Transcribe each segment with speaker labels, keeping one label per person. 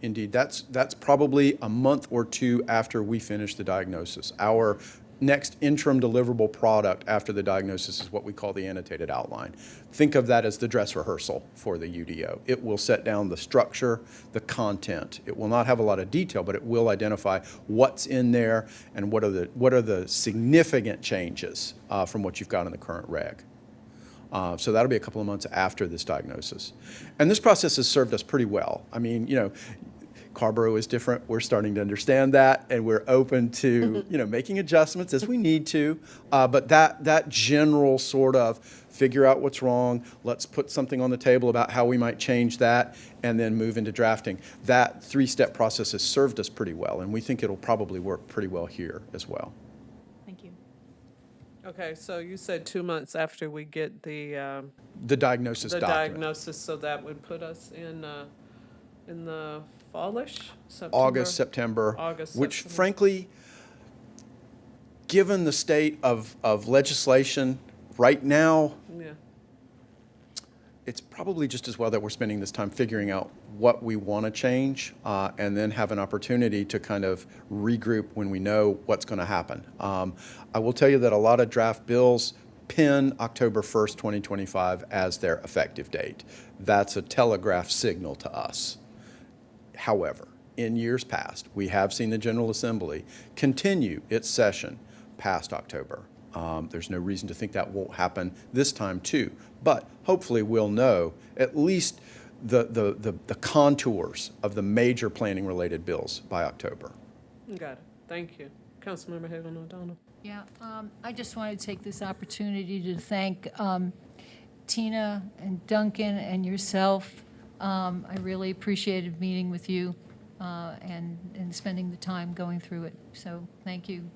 Speaker 1: Indeed, that's, that's probably a month or two after we finish the diagnosis. Our next interim deliverable product after the diagnosis is what we call the annotated outline. Think of that as the dress rehearsal for the UDO. It will set down the structure, the content. It will not have a lot of detail, but it will identify what's in there and what are the, what are the significant changes uh, from what you've got in the current reg. Uh, so that'll be a couple of months after this diagnosis. And this process has served us pretty well. I mean, you know, Carborough is different. We're starting to understand that, and we're open to
Speaker 2: Mm-hmm.
Speaker 1: you know making adjustments as we need to. Uh, but that that general sort of figure out what's wrong. Let's put something on the table about how we might change that, and then move into drafting. That three-step process has served us pretty well, and we think it'll probably work pretty well here as well.
Speaker 3: Thank you.
Speaker 2: Okay, so you said two months after we get the, um,
Speaker 1: The diagnosis
Speaker 2: the
Speaker 1: document.
Speaker 2: diagnosis, so that would put us in, uh, in the fallish? September?
Speaker 1: August, September.
Speaker 2: August,
Speaker 1: Which
Speaker 2: September.
Speaker 1: frankly, given the state of, of legislation right now,
Speaker 2: Yeah,
Speaker 1: it's probably just as well that we're spending this time figuring out what we want to change uh, and then have an opportunity to kind of regroup when we know what's going to happen. Um, I will tell you that a lot of draft bills pin October 1st, 2025 as their effective date. That's a telegraph signal to us. However, in years past, we have seen the General Assembly continue its session past October. Um, there's no reason to think that won't happen this time too. But hopefully, we'll know at least the, the, the, the contours of the major planning related bills by October.
Speaker 2: got it, thank you. Councilmember Hagan O'Donnell.
Speaker 4: Yeah, um, I just wanted to take this opportunity to thank um, Tina and Duncan and yourself. Um, I really appreciated meeting with you uh, and, and spending the time going through it. So thank you,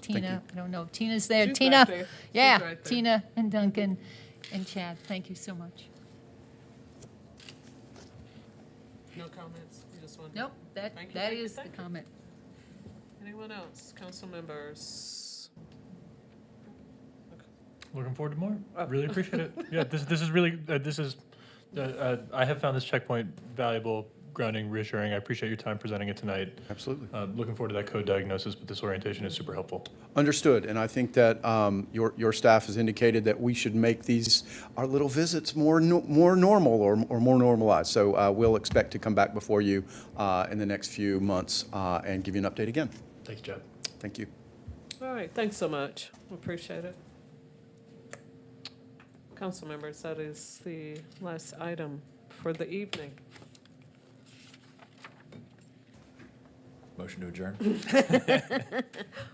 Speaker 4: Tina. I don't know if Tina's there.
Speaker 2: She's
Speaker 4: Tina?
Speaker 2: right there. She's
Speaker 4: Yeah,
Speaker 2: right there.
Speaker 4: Tina and Duncan and Chad, thank you so much.
Speaker 2: No comments, you just want?
Speaker 4: Nope, that,
Speaker 2: Thank you,
Speaker 4: that
Speaker 2: thank you,
Speaker 4: is the
Speaker 2: thank you.
Speaker 4: comment.
Speaker 2: Anyone else? Council members?
Speaker 5: Looking forward to more. Really appreciate it. Yeah, this this is really uh, this is uh, uh, I have found this checkpoint valuable, grounding, reassuring. I appreciate your time presenting it tonight.
Speaker 1: Absolutely.
Speaker 5: Uh, looking forward to that code diagnosis, but this orientation is super helpful.
Speaker 1: Understood, and I think that um, your, your staff has indicated that we should make these, our little visits more, no- more normal or, or more normalized. So uh, we'll expect to come back before you uh, in the next few months uh, and give you an update again.
Speaker 5: Thanks, Jeff.
Speaker 1: Thank you.
Speaker 2: All right, thanks so much, appreciate it. Council members, that is the last item for the evening.
Speaker 6: Motion to adjourn?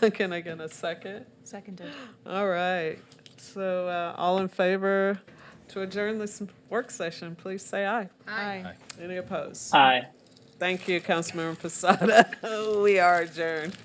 Speaker 2: Can I get a second?
Speaker 3: Seconded.
Speaker 2: All right. So, uh, all in favor to adjourn this work session, please say aye.
Speaker 3: Aye.
Speaker 2: Any opposed?
Speaker 7: Aye.
Speaker 2: Thank you, Councilmember Posada. We are adjourned.